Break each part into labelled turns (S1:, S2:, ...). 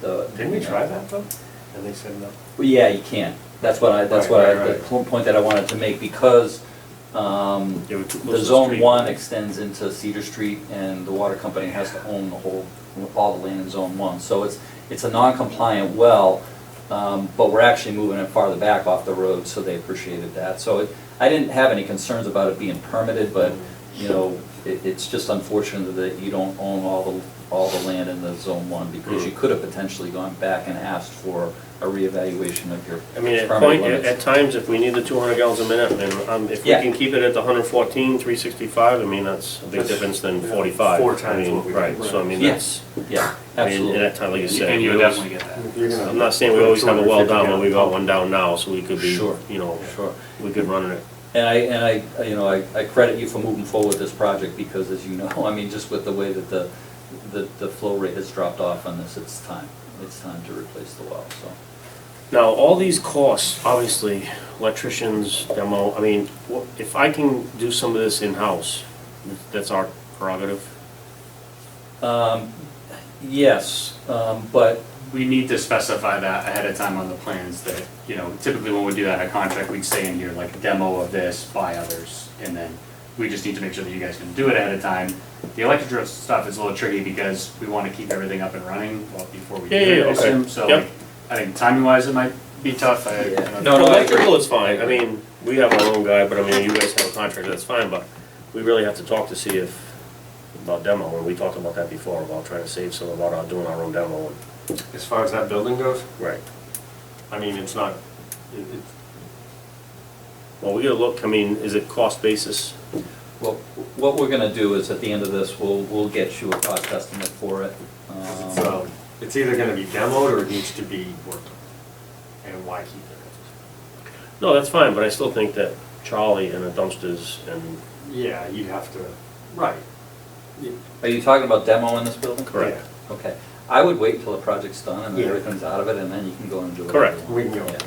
S1: the.
S2: Didn't we try that though? And they said no.
S1: Well, yeah, you can. That's what I, that's
S2: Right,
S1: what I,
S2: right,
S1: the
S2: right.
S1: pl- point that I wanted to make because, um,
S2: They were too close
S1: the
S2: to the
S1: zone
S2: street.
S1: one extends into Cedar Street and the water company has to own the whole, all the land in zone one. So it's, it's a non-compliant well, um, but we're actually moving it farther back off the road, so they appreciated that. So it, I didn't have any concerns about it being permitted, but, you know, it, it's just unfortunate that you don't own all the, all the land in the zone one because you
S3: Hmm.
S2: Mm.
S1: could have potentially gone back and asked for a reevaluation of your
S3: I mean, at
S1: permit
S3: point, at at
S1: limits.
S3: times, if we need the two hundred gallons a minute, and, um, if we
S1: Yeah.
S3: can keep it at the hundred fourteen, three sixty-five, I mean, that's a big
S2: That's,
S3: difference than
S2: yeah,
S3: forty-five.
S2: four
S3: I
S2: times
S3: mean,
S2: what we-
S3: Right, so I mean,
S1: Yeah.
S3: that's,
S1: Yeah,
S3: I mean,
S1: absolutely.
S3: at that time, like you said.
S4: And you would
S3: we always-
S4: definitely get that.
S2: You're gonna-
S3: I'm not saying we always have a well down, but
S2: 250
S3: we got one down now, so we could be,
S1: Sure.
S3: you know,
S1: Sure.
S3: we could run it.
S1: And I, and I, you know, I, I credit you for moving forward with this project because as you know, I mean, just with the way that the, the, the flow rate has dropped off on this, it's time. It's time to replace the well, so.
S3: Now, all these costs, obviously, electricians, demo, I mean, wha- if I can do some of this in-house, that's our prerogative.
S1: Um, yes, um, but,
S4: We need to specify that ahead of time on the plans that, you know, typically when we do that in a contract, we'd say in here like demo of this by others. And then we just need to make sure that you guys can do it ahead of time. The electrical stuff is a little tricky because we want to keep everything up and running well, before we do
S3: Yeah, yeah,
S4: it.
S3: yeah,
S4: I
S3: okay.
S4: assume. So
S3: Yep.
S4: like, I think timing wise, it might be tough. I- you
S1: Yeah.
S4: know,
S1: No, no, I agree.
S3: Electrical is fine, I mean, we have our own guy, but I mean, you guys have a contractor, that's fine, but we really have to talk to see if, about demo, and we talked about that before, about trying to save some about our, doing our own demo. and-
S2: As far as that building goes,
S3: Right. I mean, it's not, it, it. Well, we gotta look, I mean, is it cost basis?
S1: well, what we're gonna do is at the end of this, we'll, we'll get you a cost estimate for it.
S2: it's,
S1: Um,
S2: um, it's either gonna be demoed or it needs to be worked on. And why keep it?
S3: No, that's fine, but I still think that Charlie and the dumpsters and,
S2: Yeah, you'd have to, right. You-
S1: Are you talking about demo in this building?
S3: Correct.
S1: Okay. I would wait till the project's done and
S2: Yeah.
S1: everything's out of it, and then you can go and do it.
S3: Correct.
S2: We can go.
S1: Yeah.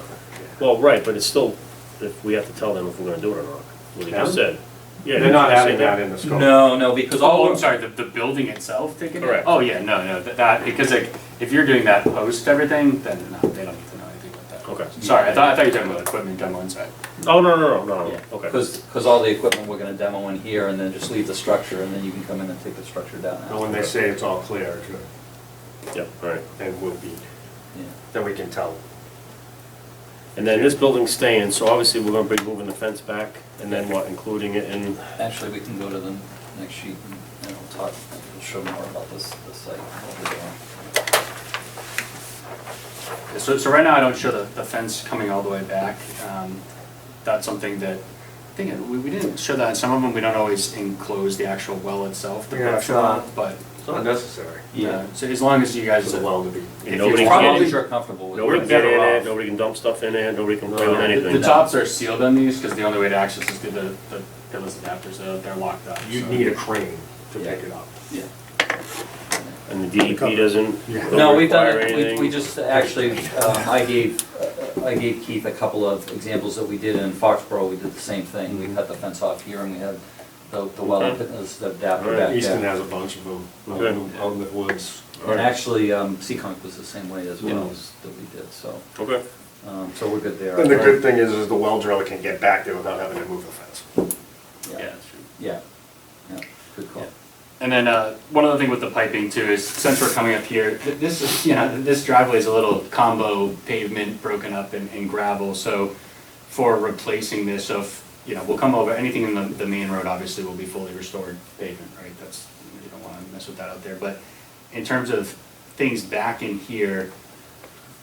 S3: well, right, but it's still, if we have to tell them if we're gonna do it or not, what you just
S2: Them?
S3: said. Yeah,
S2: They're not
S3: you just
S2: adding
S3: said
S2: that in the scope.
S1: No, no, because all.
S4: Oh, I'm sorry, the, the building itself taken? down?
S3: Correct.
S4: Oh, yeah, no, no, that- that, because like, if you're doing that post everything, then no, they don't need to know anything about that.
S3: Okay.
S4: Sorry, I thought, I thought you were talking about equipment demo inside.
S3: Oh, no, no, no, no, no, okay.
S1: Because, because Um, all the equipment we're gonna demo in here, and then just leave the structure, and then you can come in and take the structure down.
S2: Oh, And when
S1: after.
S2: they say it's all clear, it's good,
S3: Yep, all right.
S2: then we'll be,
S1: Yeah.
S2: then we can tell.
S3: And then this building's staying, so obviously we're gonna be moving the fence back, and then what, including it in,
S1: Actually, we can go to the next sheet, and- and we'll talk, we'll show more about this, this site. what we're doing.
S4: So, so right now, I don't show the, the fence coming all the way back. Um, That's something that, I think, it- we, we didn't show that, in some of them, we don't always enclose the actual well itself, the
S2: Yeah,
S4: well
S2: it's not-
S4: but,
S2: It's not necessary.
S4: yeah, so as long as you guys.
S2: It's a well to be.
S4: If
S3: Nobody
S4: you're
S3: can-
S1: Probably
S4: probably-
S1: you're comfortable with.
S3: nobody
S4: We're
S3: can
S1: it.
S3: get in
S4: better
S3: it,
S4: off.
S3: nobody can dump stuff in there, nobody can play
S2: No.
S3: with
S4: The
S3: anything.
S4: tops are sealed on these, because the only way to access is through the, the pillars adapters, uh, they're locked up.
S2: You'd
S4: so.
S2: need a crane to pick it up.
S1: Yeah.
S3: And the DEP doesn't,
S2: Yeah.
S1: No,
S3: don't
S1: we've done
S3: require
S1: it, we,
S3: anything.
S1: we just, actually, um, I gave, uh, I gave Keith a couple of examples that we did in Foxborough, we did the same thing. We cut the fence off here, and we had the, the well,
S3: Okay.
S1: as the adapter
S3: Alright,
S1: back
S2: Easton
S1: there.
S2: has a bunch of them,
S3: Good.
S2: um, out in the woods.
S1: And actually, um, Seekonk was the same way as well
S2: Yeah.
S1: as that we did, so,
S3: Okay.
S1: um, so we're good there.
S2: And the good thing is, is the well driller can get back there without having to move the fence.
S1: Yeah.
S4: Yeah, that's true.
S1: Yeah, yeah, good call.
S4: Yeah. And then, uh, one other thing with the piping too is, since we're coming up here, th- this is, you know, th- this driveway is a little combo pavement broken up and, and gravel, so for replacing this of, you know, we'll come over, anything in the, the main road obviously will be fully restored pavement, right? That's, you don't wanna mess with that out there, but in terms of things back in here,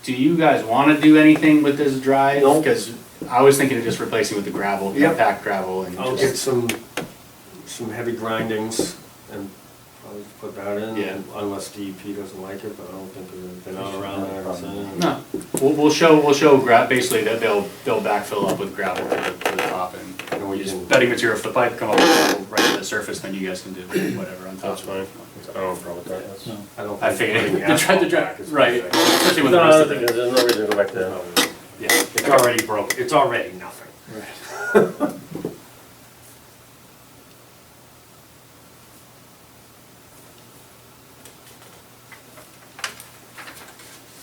S4: do you guys wanna do anything with this drive?
S2: No.
S4: Cause I was thinking of just replacing with the gravel,
S2: Yep.
S4: compact gravel and
S2: I'll
S4: just-
S2: get some, some heavy grindings and probably put that in.
S4: Yeah.
S2: Unless DEP doesn't like it, but I don't think they're, they're not around there. or something.
S4: No, we'll, we'll show, we'll show gra, basically that they'll, they'll backfill up with gravel to the, to the top and
S2: And we can-
S4: use bedding material for the pipe, come up with gravel right to the surface, then you guys can do whatever on top.
S3: That's fine. I don't have a problem with that. That's-
S2: I don't
S4: I
S2: think
S4: figured,
S2: putting
S4: to try to
S2: asphalt back
S4: drive,
S2: is
S4: right,
S2: gonna fix
S4: especially with the
S3: No,
S4: rest of
S3: no,
S4: the,
S3: there's no reason to go back there.
S2: it.
S4: yeah.
S2: It's already broke, it's already nothing.